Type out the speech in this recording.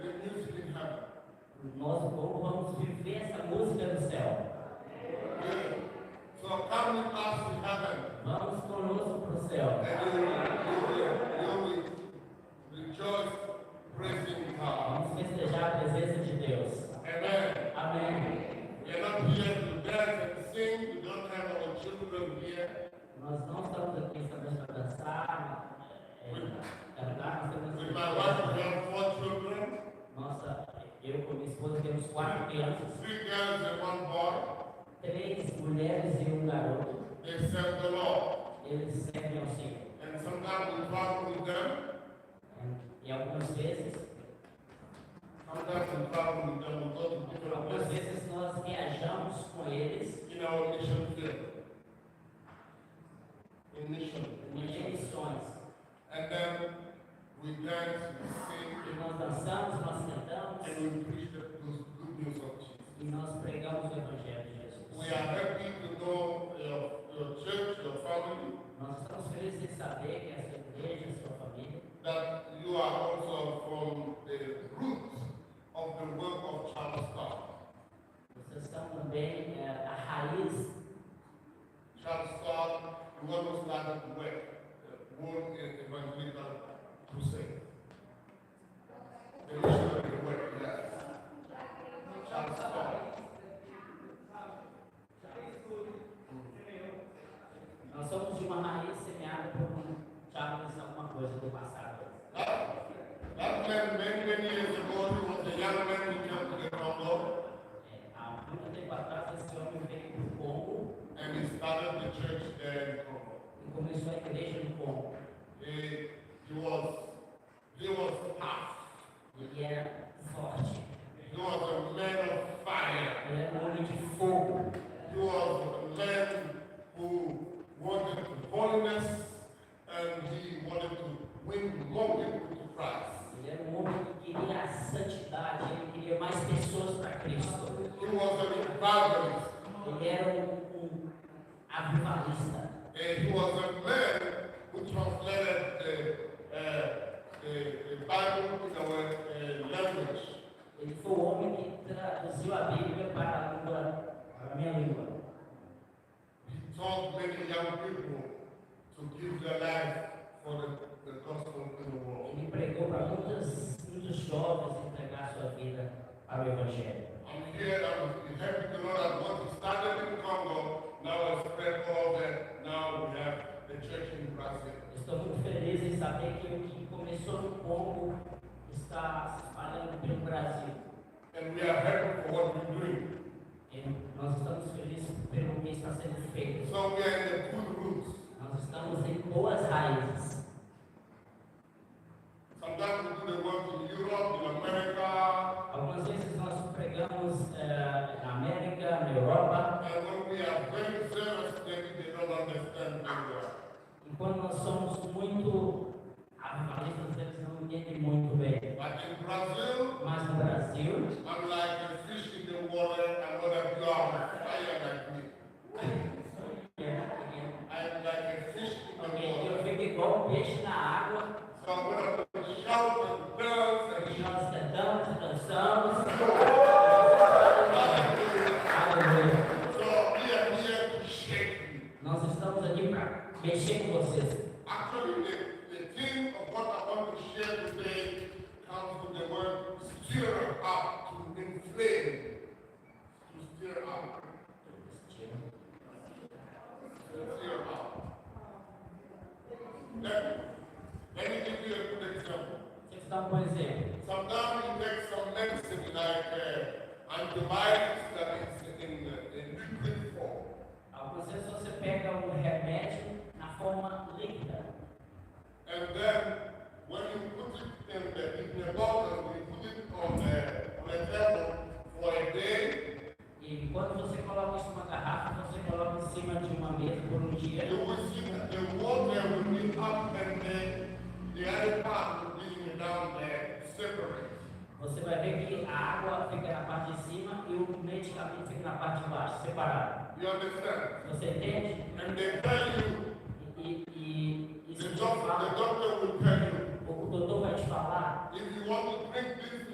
Nós vamos viver essa música no céu. So come with us to heaven, Vamos conosco para o céu. and you will, you will, you will rejoice praising God. Vamos festejar a presença de Deus. Amen. Amém. We are not here to dance and sing. We don't have our children here. Nós não estamos aqui somente para dançar, é, cantar, nós temos With my wife, we have four children, Nossa, eu com minha esposa temos quatro crianças, three girls and one boy. três mulheres e um garoto. They serve the Lord. Eles servem ao Senhor. And sometimes we travel with them. né? E algumas vezes, Sometimes we travel with them. We go to different algumas places vezes nós viajamos com eles in our mission field. In mission, em mission. missões. And then we dance, we E sing, nós dançamos, nós cantamos and we preach the good good news of Jesus. e nós pregamos o Evangelho de Jesus. We are happy to know your, your church, your family, Nós estamos felizes de saber que a sua igreja, a sua família, that you are also from the roots of the work of Charles Scott. vocês são também é, a raiz Charles Scott, the one who started the work, the world in evangelical crusade. The missionary work, yes. Charles Scott. Nós somos de uma raiz semeada por um Charles, alguma coisa do passado. That, that man, many, many years ago, he was a young man who came to the Congo É, há muito tempo atrás, esse homem veio do Congo and he started the church there in Congo. e começou a igreja no Congo. He, he was he was tough. Ele era forte, He was a man of fire. ele era um homem de fogo. He was a man who wanted holiness and he wanted to win more people to Christ. Ele era um homem que queria a santidade, ele queria mais pessoas para Cristo. He was an evangelist Ele era um, um avivalista. and Eh, he was a man who translated the, uh, the, the Bible in our uh, language. Ele foi o homem que traduziu a Bíblia para a, língua, para a minha língua. He taught many young people to give their life for the, the gospel in the world. Ele pregou para muitas, muitos jovens entregar sua vida para o Evangelho. I'm here, I'm happy to know that what we started in Congo, now I spread all that, now we have the church in Brazil. Estou muito feliz em saber que o que começou no Congo está se espalhando pelo Brasil. And we are happy for what we're doing. E nós estamos felizes pelo que está sendo feito. So we are in the good roots. Nós estamos em boas raízes. Sometimes we do the work in Europe, in America, Algumas vezes nós pregamos eh, na América, na Europa, and when we are very serious, maybe they don't understand very well. e quando nós somos muito avivalistas, eles não entendem muito bem. But in Brazil, Mas no Brasil, I'm like a fish in the water, and whether you are on fire like me. é- I am like a fish in the water. Eu fico igual um peixe na água, So I'm gonna shout and dance and e nós cantamos e dançamos. Aleluia. So we are here to shake you. Nós estamos aqui para mexer com vocês. Actually, the, the theme of what I want to share today comes from the word stir up, to inflame, to stir up, to stir up. Let, let me give you a good example. Deixa eu dar um bom exemplo. Sometimes we take some medicine like uh, antibiotics that is in, uh, in liquid form. Algumas vezes você pega um remédio na forma líquida. And then when you put it in the, in the bottle, you put it on the, on the table for a day, E quando você coloca isso numa garrafa, você coloca em cima de uma mesa por um dia. you will see that the water will be up and then the other part will be down there, separate. Você vai ver que a água fica na parte de cima e o medicamento fica na parte de baixo, separado. You understand? Você entende? And they tell you, E, e, e the isso te doctor, the fala, doctor will tell you, o doutor vai te falar, if you want to drink